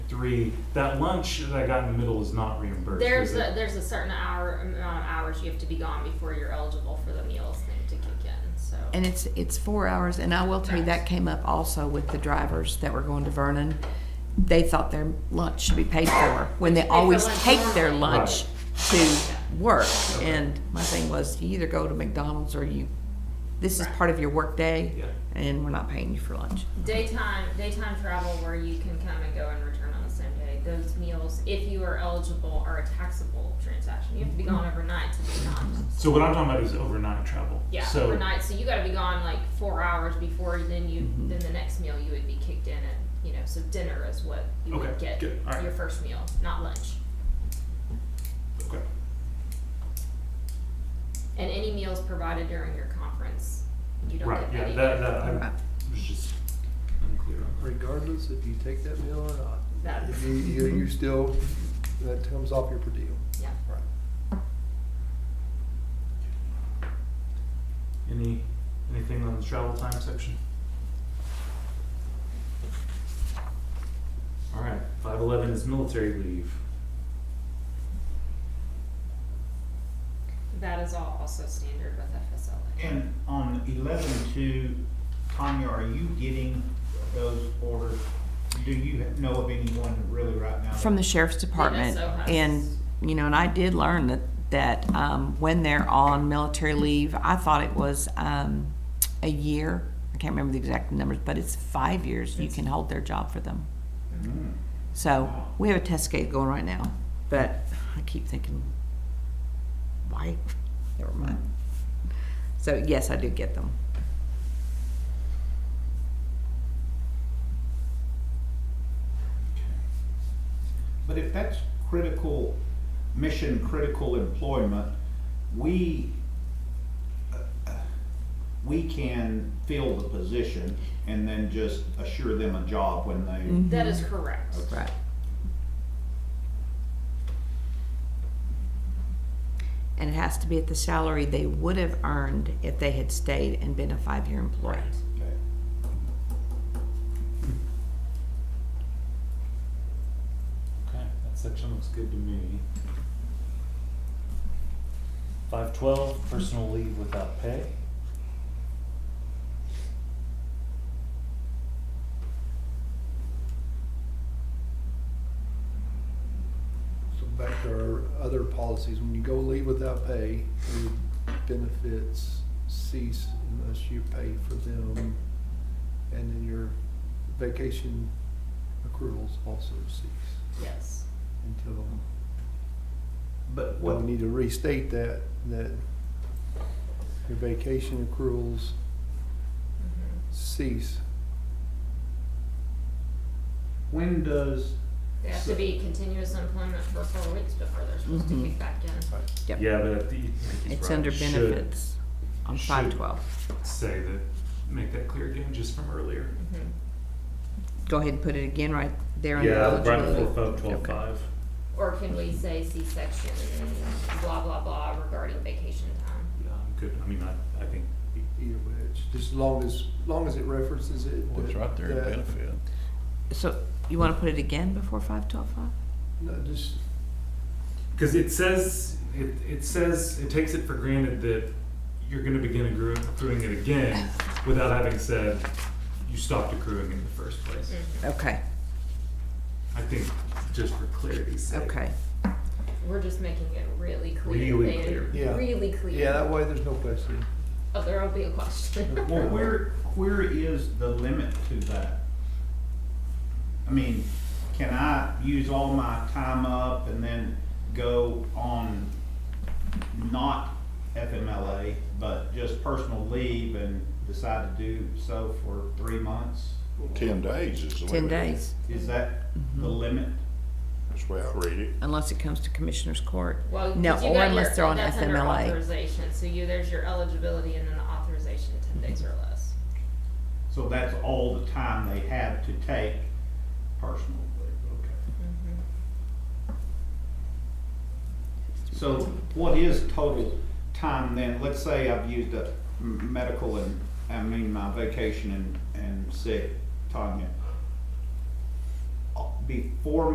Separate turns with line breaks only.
three, that lunch that I got in the middle is not reimbursed.
There's
is
a,
it?
there's a certain hour, amount of hours you have to be gone before you're eligible for the meals thing to kick in, so.
And it's, it's four hours, and I will tell you, that came up also with the drivers that were going to Vernon. They thought their lunch should be paid for, when they
for
always
lunch
take their
normally.
lunch to work. And my thing was, you either go to McDonald's or you, this is
Right.
part of your workday,
Yeah.
and we're not paying you for lunch.
Daytime, daytime travel where you can come and go and return on the same day, those meals, if you are eligible, are a taxable transaction. You have to be gone overnight to be gone.
So what I'm talking about is overnight travel.
Yeah,
So
overnight, so you gotta be gone like four hours before, then you,
Mm-hmm.
then the next meal you would be kicked in and, you know, so dinner is what you would
Okay,
get,
good, all right.
your first meal, not lunch.
Okay.
And any meals provided during your conference, you don't
Right,
get
yeah,
any.
that, that, I
Right.
was just unclear on that.
regardless if you take that meal or not.
That's,
If you, you, you still, that comes off your per diem.
yeah.
Right.
Any, anything on the travel time section? All right, five eleven is military leave.
That is all also standard with FSLA.
And on eleven two, Tanya, are you getting those orders? Do you know of anyone really right now?
From the sheriff's department,
so has-
and, you know, and I did learn that, that, um, when they're on military leave, I thought it was, um, a year. I can't remember the exact numbers, but it's five years you can hold their job for them.
Mm.
So, we have a test case going right now, but I keep thinking, why? Never mind. So, yes, I do get them.
But if that's critical, mission critical employment, we, uh, uh, we can fill the position and then just assure them a job when they,
That is correct.
Right. And it has to be at the salary they would have earned if they had stayed and been a five-year employee.
okay.
Okay, that section looks good to me. Five twelve, personal leave without pay.
So back to our other policies, when you go leave without pay, your benefits cease unless you pay for them. And then your vacation accruals also cease
Yes.
until,
But
well,
what,
we need to restate that, that your vacation accruals cease
when does,
They have to be continuous employment for four weeks before they're supposed to
Mhm.
kick back in.
Yep.
Yeah, but at the, I think he's
It's
right.
under
Should
benefits on
should-
five twelve.
Say that, make that clear again, just from earlier.
Mhm.
Go ahead and put it again right there on the eligibility. Okay.
Or can we say C-section, blah, blah, blah regarding vacation time?
Yeah, I'm good, I mean, I, I think,
Either which, E just as long as, long as it references it.
Well, it's
that-
right there in
that-
benefit.
So you wanna put it again before five twelve five?
No, just,
because it says, it, it says, it takes it for granted that you're gonna begin accru- accruing it again without having said you stopped accruing in the first place.
Mm-hmm.
Okay,
I think, just for clarity's sake.
Mm. okay.
We're just making it really clear.
Really
and
clear.
Yeah.
Really clear.
yeah, that way there's no question.
Oh, there'll be a question.
well, where, where is the limit to that? I mean, can I use all my time up and then go on not FMLA, but just personal leave and decide to do so for three months?
Ten days is the way.
Ten days,
Is that the limit?
That's the way I read it.
unless it comes to commissioner's court.
Well,
No,
'cause you
or
got
unless
your-
they're on
that's under
FMLA.
Authorization, so you, there's your eligibility and then the authorization, ten days or less.
So that's all the time they have to take personal leave, okay. So what is total time then? Let's say I've used a m- medical and, I mean, my vacation and, and sick, Tanya. Uh, Before